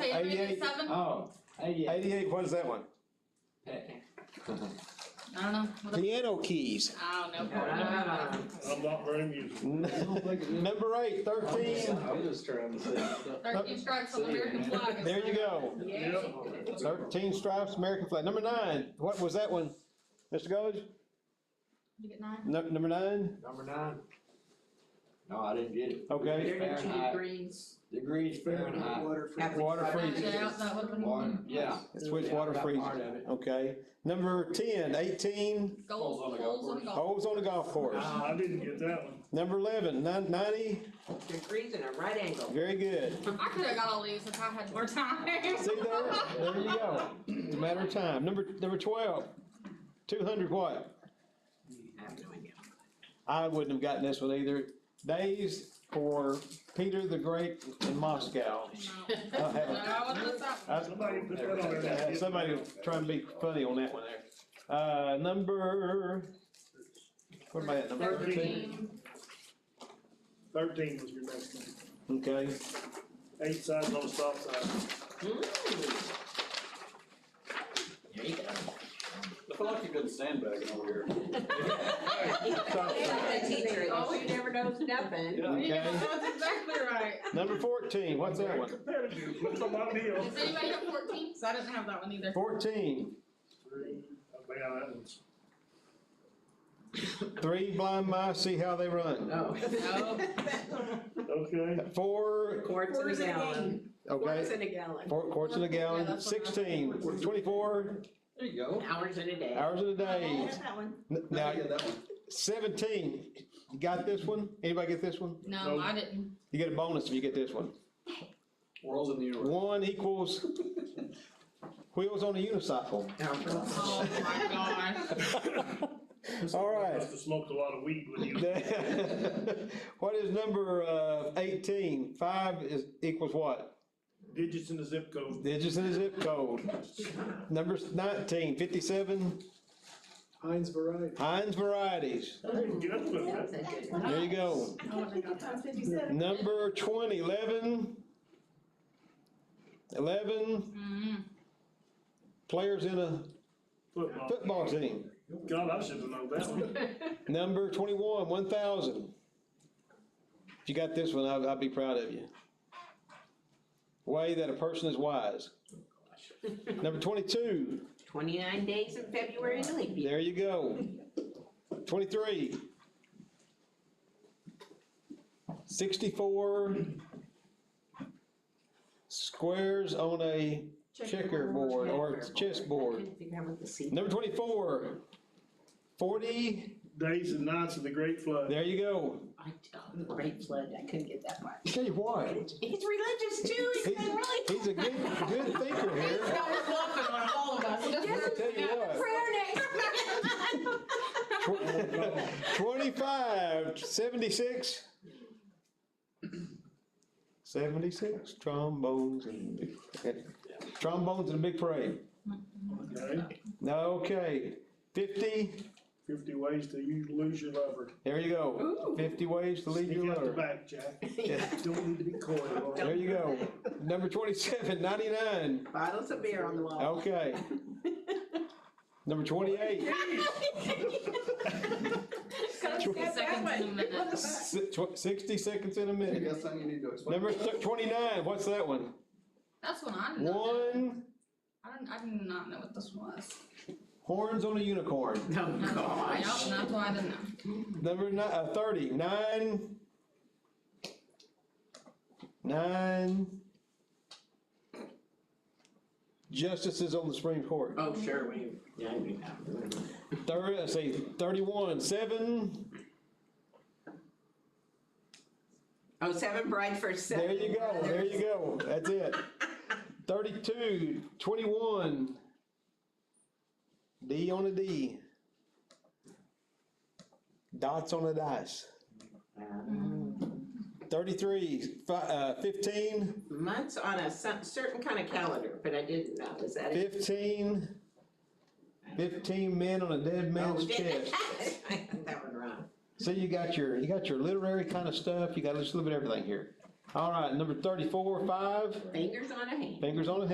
88 seven? Oh, eighty-eight. Eighty-eight, when's that one? Okay. I don't know. What the- Piano keys. I don't know. Ah. I'm not very musical. Number eight, thirteen. I was trying to say. Thirteen strikes on the American flag. There you go. Yeah. Thirteen stripes, American flag. Number nine, what was that one? Mr. Gold, You get nine? nu- number nine? Number nine. No, I didn't get it. Okay. Fahrenheit. degrees. Degrees Fahrenheit. Water for. Half Water I found freezes. it out, that would be- One, yeah. Switch water Yeah, I got freezer. part of it. Okay. Number ten, eighteen, Goals, on the golf goals on the golf. holes on the golf course. Ah, I didn't get that one. Number eleven, nine ninety, Degrees in a right angle. very good. I could have got all these if I had more time. See there, there you go. It's a matter of time. Number, number twelve, two hundred what? Mm. I have no idea. I wouldn't have gotten this one either. Days for Peter the Great in Moscow. No. I'll have a- No, what's that? I- Somebody put that on uh, there. Somebody try and be funny on that one there. Uh, number, where am I at, number thirteen? Thirteen. Thirteen was your next one. Okay, Eight sides on a stop sign. Mm. There you go. I feel like you've been sandbagging over here. uh, The teacher, oh, you never knows nothing. Yeah. okay. That's exactly right. Number fourteen, what's that one? Competitive, look on my deal. Does anybody have fourteen? So I didn't have that one either. Fourteen, Three, oh, man, that one's. three blind mice, see how they run. No. Okay, Four, Quarts in a Quarts in a gallon. okay. Quarts in a gallon. Four quarts in a Yeah, gallon, that's what I- sixteen, twenty-four There you go. Hours in a day. hours in a I day. have that one. N- I Now, get that one. seventeen, you got this one? Anybody get this one? No, I didn't. You get a bonus if you get this one. Worlds in the universe. One equals wheels on a unicycle. Oh, my gosh. All right. must have smoked a lot of weed when you. What is number, uh, eighteen? Five is, equals what? Digits in the zip code. Digits in a zip code. Number nineteen, fifty-seven, Heinz variety. Heinz varieties. Good one, man. There you go. I can't think it's on fifty-seven. Number twenty, eleven. Eleven Mm. players in a Football. football team. God, I should have known that one. Number twenty-one, one thousand. If you got this one, I'd, I'd be proud of you. Way that a person is wise. Number twenty-two, Twenty-nine days in February to leap year. there you go. Twenty-three. Sixty-four squares on a checkerboard or I chessboard. couldn't figure out what the C. Number twenty-four, forty, Days and nights of the great flood. there you go. I tell you, Great flood, I couldn't get that part. Tell you what, He's religious too, he's He's- been really. he's a good, good thinker here. That was laughing on all of us. I tell you what, Prayer next. tw- twenty-five, seventy-six. Seventy-six trombones and, trombones and a big parade. Okay, Okay, fifty, fifty ways to you lose your lover. there you go. Ooh. Fifty ways to leave Sneak your out the lover. back, Jack. Don't need to be coy. Lord. There you go. Number twenty-seven, ninety-nine, Bottles of beer on the wall. okay. Number twenty-eight. Seconds in a minute. Si- tw- Sixty seconds in a I minute. guess something you need to explain. Number th- twenty-nine, what's that one? That's one I didn't know. One, I didn't, I did not know what this was. horns on a unicorn. No, Yep, gosh. that's why I didn't know. Number ni- uh, thirty, nine. Nine. Justices on the Supreme Court. Oh, sure, we, yeah, I knew that. Thirty, I say thirty-one, seven, Oh, seven brides for seven. there you go, there you go, that's it. Thirty-two, twenty-one. D on a D. Dots on a dice. Thirty-three, fi- uh, fifteen, Months on a cer- certain kind of calendar, but I didn't know, is that it? fifteen. Fifteen men on a dead man's chest. I got Oh, that one wrong. So you got your, you got your literary kind of stuff, you got just a little bit of everything here. All right, number thirty-four, five, fingers on a hand. fingers on a